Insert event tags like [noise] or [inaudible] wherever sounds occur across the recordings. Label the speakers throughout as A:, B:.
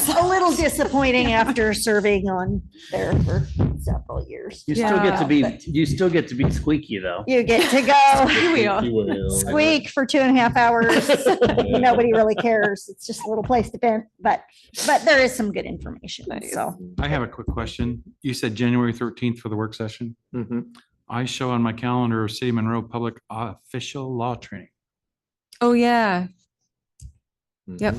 A: [laughs] little disappointing after serving on there for several years.
B: You still get to be,
A: But
B: you still get to be squeaky though.
A: You get to go
C: Here we are.
A: [laughs] squeak for two and a half [laughs] hours. Nobody really cares. It's just a little place to vent, but, but there is some good information.
C: Nice.
A: So
D: I have a quick question. You said January thirteenth for the work session.
B: Mhm.
D: I show on my calendar of City of Monroe Public Official Law Training.
C: [laughs] Oh, yeah.
E: Mm-hmm.
C: Yep.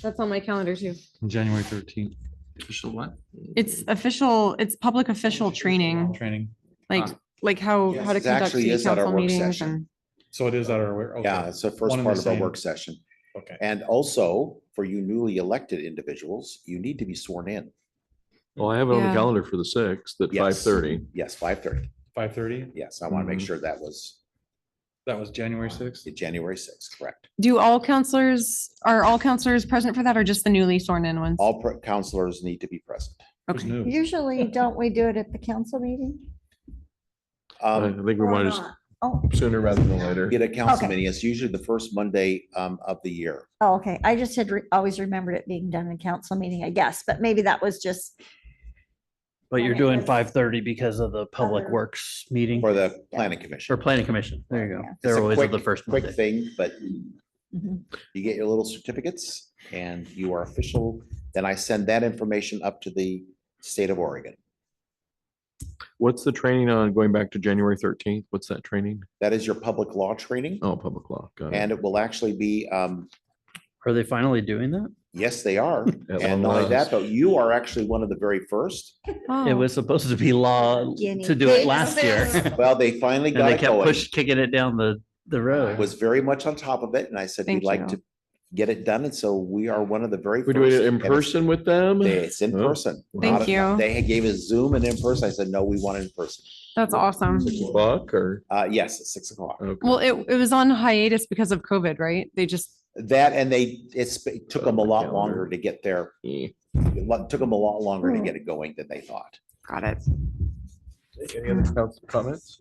C: That's on my calendar too.
D: January thirteenth. Official what?
C: It's official, it's public official training,
D: Training.
C: like,
D: Ah.
C: like how,
E: Yes,
C: how to
E: it
C: conduct
E: actually
C: city
E: is at our
C: council
E: work
C: meetings
E: session.
C: and.
D: So it is that our. oh,
E: Yeah, it's the first
D: One and
E: part
D: the
E: of our
D: same.
E: work session.
D: Okay.
E: And also, for you newly elected individuals, you need to be sworn in.
F: Well, I have it on the
C: Yeah.
F: calendar for the sixth at five
E: Yes.
F: thirty.
E: Yes, five thirty.
D: Five thirty?
E: Yes, I want to make
F: Mhm.
E: sure that was
D: That was January sixth?
E: January sixth, correct?
C: Do all counselors, are all counselors present for that or just the newly sworn in ones?
E: All pre- counselors need to be present.
C: Okay.
D: [laughs]
A: usually don't we do it at the council meeting?
F: I
E: Um,
F: think we
A: Or
F: want to
A: not? Oh,
F: sooner rather than later.
E: Get a council
A: Okay.
E: meeting. It's usually the first Monday um, of the year.
A: oh, okay. I just had re- always remembered it being done in council meeting, I guess, but maybe that was just
G: But you're
A: Okay.
G: doing five thirty because of the public
A: Other-
G: works meeting
E: For the planning commission.
G: or planning commission. There you go.
A: Yeah.
E: It's
G: They're
E: a
G: always at the
E: quick-
G: first
E: Quick
G: Monday.
E: thing, but
A: Mhm.
E: you get your little certificates and you are official. Then I send that information up to the state of Oregon.
F: What's the training on going back to January thirteenth? What's that training?
E: That is your public law training
F: Oh, public law. Got it.
E: and it will actually be, um,
G: Are they finally doing that?
E: yes,
F: [laughs]
E: they are.
F: At
E: And not
F: long
E: only that,
F: last.
E: but you are actually one of the very first.
C: [laughs]
G: It
C: Oh.
G: was supposed to be law
A: Guinea
G: to do it
A: pigs.
G: last year.
E: Well, they
G: [laughs]
E: finally
G: And
E: got
G: they
E: it
G: kept
E: going.
G: push kicking it down the, the
E: I
G: road.
E: Was very much on top of it and I said, we'd
C: Thank
E: like
C: you.
E: to get it done. And so we are one of the very.
F: We're doing
E: first.
F: it in
E: And it's-
F: person with them?
E: they- It's in
F: Oh.
E: person.
C: Thank
E: Not-
C: you.
E: They gave us Zoom and in person. I said, no, we want it in person.
C: That's awesome.
F: Buck or?
E: Uh, yes, at six o'clock.
F: okay.
C: Well, it, it was on hiatus because of COVID, right? They just,
E: That and they, it's, it took them a lot
F: Calendar.
E: longer to get there.
F: Eh.
E: It lo- took them a lot longer to
A: Hmm.
E: get it going than they thought.
C: got it.
F: Any other council comments?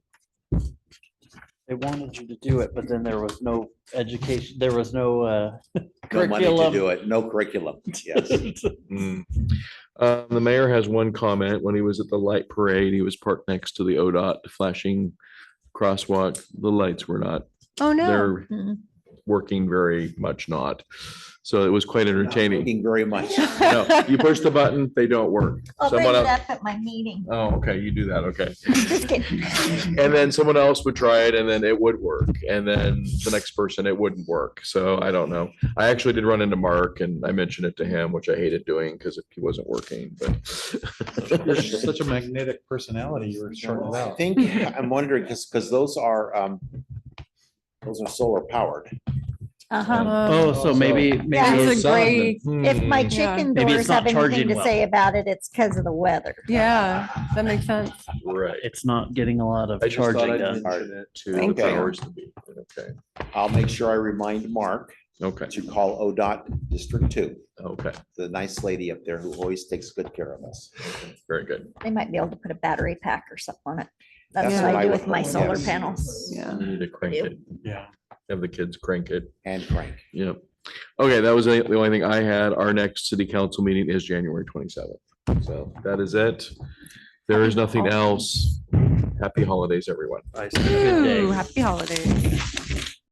G: They wanted you to do it, but then there was no education, there was no, uh,
E: No money to
G: curriculum.
E: do it,
F: [laughs]
E: no curriculum. Yes.
F: Mm. Uh, the mayor has one comment. When he was at the light parade, he was parked next to the ODOT flashing crosswalk. The lights were not,
C: Oh, no.
F: they're
A: Mhm.
F: working very much not. So it was quite
E: Not
F: entertaining.
E: working Very much.
C: [laughs]
F: No, you push the button, they don't work.
A: I'll bring
F: Someone
A: it
F: else,
A: up at my meeting.
F: oh, okay, you do that, okay.
A: Just [laughs] kidding.
F: And then someone else would try it and then it would work. And then the next person, it wouldn't work. So I don't know. I actually did run into Mark and I mentioned it to him, which I hated doing because he wasn't working,
D: You're
F: but.
D: such a magnetic personality. You were shorting it
E: I
D: out.
E: think, I'm wondering, because, because those are, um, those are solar powered.
C: Um,
A: Uh-huh.
G: Oh, so maybe, uh,
A: That's
G: maybe,
C: It's a
F: Some of them.
C: great,
A: If my
F: Hmm.
C: Yeah.
A: chicken
G: Maybe
A: doors
G: it's
A: have
G: not
A: anything
G: charging
A: to
G: well.
A: say about it, it's because of the weather.
C: yeah, that makes sense.
F: Right.
G: it's not getting a lot of
F: I just thought
G: charging
F: I'd
G: done.
F: mention it To the
E: Thank you.
F: powers to be. Okay,
E: I'll make sure I remind Mark
F: okay,
E: to call ODOT District Two,
F: okay,
E: the nice lady up there who always takes good care of us.
F: very good.
A: They might be able to put a battery pack or something on it. That's
E: That's
A: what
E: what
A: I
E: I
A: do
E: would
A: with my
E: hope,
A: solar
E: yes.
A: panels.
C: Yeah.
F: We Need to crank
A: Ew.
F: it,
D: Yeah.
F: have the kids crank it.
E: And Frank,
F: Yep. Okay, that was the the only thing I had. Our next city council meeting is January twenty-seventh. So that is it. There is nothing else. Happy holidays, everyone.
G: I said, "Good
C: Ooh,
G: day."
C: happy holidays.